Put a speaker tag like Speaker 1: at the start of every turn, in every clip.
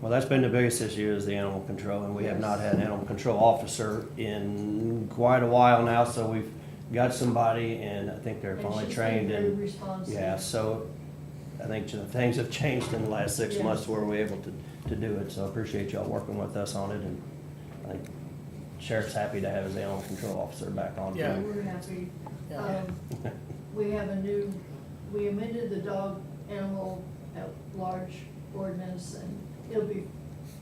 Speaker 1: Well, that's been the biggest issue is the animal control, and we have not had an animal control officer in quite a while now, so we've got somebody, and I think they're
Speaker 2: And
Speaker 1: finally
Speaker 2: she's been
Speaker 1: trained
Speaker 2: very
Speaker 1: and,
Speaker 2: responsive.
Speaker 1: yeah, so I think the things have changed in the last six
Speaker 2: Yes.
Speaker 1: months where we're able to, to do it, so I appreciate y'all working with us on it, and I think Sheriff's happy to have his animal control officer back on. too.
Speaker 3: Yeah.
Speaker 2: And We're happy.
Speaker 3: Yeah.
Speaker 2: Um, We have a new, we amended the dog animal at large ordinance and it'll be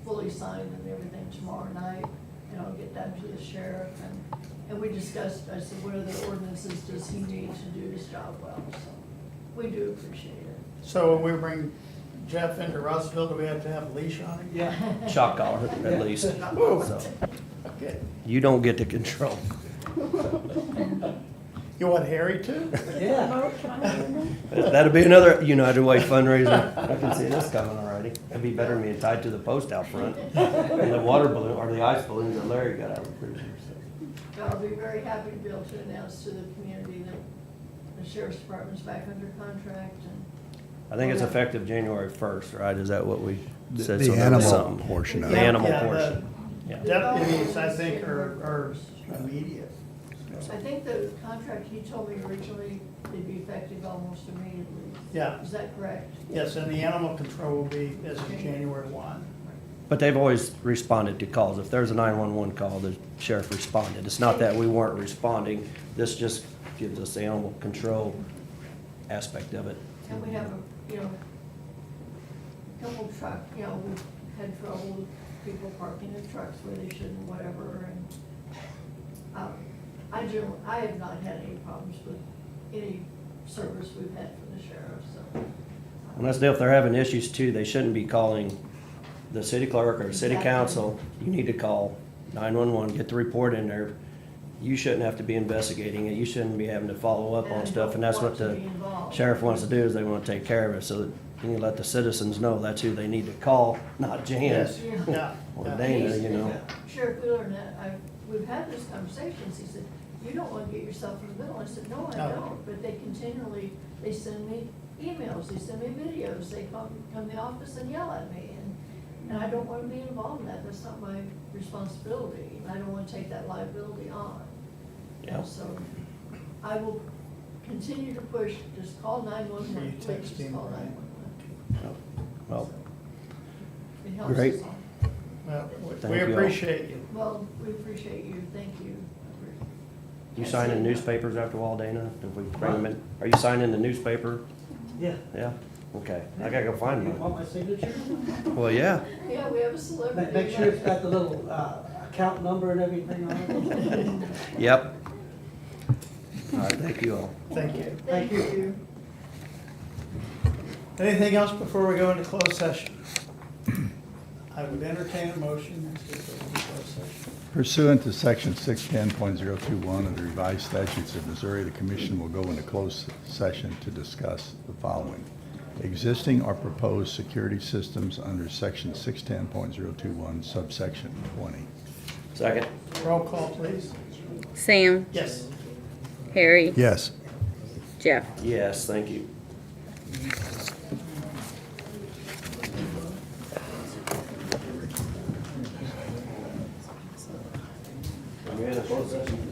Speaker 2: fully signed and everything tomorrow night. And I'll get that to the sheriff and, and we discussed, I said, what other ordinances does he need to do his job well? So we do appreciate it.
Speaker 3: So when we bring Jeff into Russellville, do we have to have a leash on him? Yeah.
Speaker 1: Shock collar, at least, so,
Speaker 3: Okay.
Speaker 1: you don't get to control.
Speaker 3: You want Harry too?
Speaker 4: Yeah.
Speaker 1: That'll be another United Way fundraiser. I can see this coming already. It'd be better than being tied to the post out front. And the water balloon, or the ice balloon that Larry got out, I'm pretty sure, so.
Speaker 2: I'll be very happy to be able to announce to the community that the sheriff's department's back under contract and
Speaker 1: I think it's effective January first, right? Is that what we
Speaker 5: The-
Speaker 1: said?
Speaker 5: the
Speaker 1: So that'll be
Speaker 5: animal
Speaker 1: something.
Speaker 5: portion of
Speaker 1: The
Speaker 5: it.
Speaker 1: animal
Speaker 3: Yeah, the-
Speaker 1: portion, yeah.
Speaker 3: Deputies, I think, are, are immediate.
Speaker 2: I think the contract he told me originally, it'd be effective almost immediately.
Speaker 3: Yeah,
Speaker 2: Is that correct?
Speaker 3: yes, and the animal control will be, as of January one.
Speaker 1: But they've always responded to calls. If there's a nine-one-one call, the sheriff responded. It's not that we weren't responding. This just gives us the animal control aspect of it.
Speaker 2: And we have, a you know, couple truck, you know, we've had trouble with people parking their trucks where they shouldn't, whatever, and, um, I generally, I have not had any problems with any service we've had from the sheriff, so.
Speaker 1: And that's the deal, if they're having issues too, they shouldn't be calling the city clerk or city
Speaker 2: Exactly.
Speaker 1: council. You need to call nine-one-one, get the report in there. You shouldn't have to be investigating it, you shouldn't be having to follow up
Speaker 2: And I
Speaker 1: on stuff,
Speaker 2: don't
Speaker 1: and that's
Speaker 2: want
Speaker 1: what
Speaker 2: to
Speaker 1: the
Speaker 2: be involved.
Speaker 1: sheriff wants to do, is they wanna take care of it, so that you can let the citizens know that's who they need to call, not Jan.
Speaker 3: Yes,
Speaker 2: Yeah.
Speaker 3: yeah.
Speaker 1: Or
Speaker 3: yeah.
Speaker 1: they- Dana, you know.
Speaker 2: Sheriff Wheeler and I, we've had these conversations, he said, you don't wanna get yourself in the middle, I said, no, I
Speaker 3: No.
Speaker 2: don't, but they continually, they send me emails, they send me videos, they come, come to the office and yell at me, and, and I don't wanna be involved in that, that's not my responsibility, and I don't wanna take that liability on.
Speaker 1: Yeah.
Speaker 2: So, I will continue to push, just call
Speaker 3: You
Speaker 2: nine-one-one, please,
Speaker 3: text
Speaker 2: just
Speaker 3: him,
Speaker 2: call
Speaker 3: right?
Speaker 2: nine-one-one.
Speaker 1: Well,
Speaker 2: It helps us
Speaker 1: Great.
Speaker 2: all.
Speaker 3: Well, we-
Speaker 1: Thank
Speaker 3: We
Speaker 1: you all.
Speaker 3: appreciate you.
Speaker 2: Well, we appreciate you, thank you.
Speaker 1: you signing newspapers after all, Dana? If we bring them in, are you signing the newspaper?
Speaker 4: Yeah.
Speaker 1: Yeah, okay, I gotta go
Speaker 4: You
Speaker 1: find one.
Speaker 4: want my signature?
Speaker 1: Well, yeah.
Speaker 2: Yeah, we have a
Speaker 4: Make,
Speaker 2: celebrity.
Speaker 4: make sure it's got the little, uh, account number and everything on it.
Speaker 1: Yep. All right, thank you all.
Speaker 3: Thank you.
Speaker 2: Thank you.
Speaker 3: Anything else before we go into closed session? I would entertain a motion to go into closed session.
Speaker 5: Pursuant to Section 610.021 of the revised statutes of Missouri, the commission will go into closed session to discuss the following. Existing or proposed security systems under Section 610.021 subsection 20.
Speaker 1: Second.
Speaker 3: Roll call, please.
Speaker 6: Sam,
Speaker 3: Yes.
Speaker 6: Harry,
Speaker 5: Yes.
Speaker 6: Jeff.
Speaker 1: Yes, thank you. Are we in a closed session?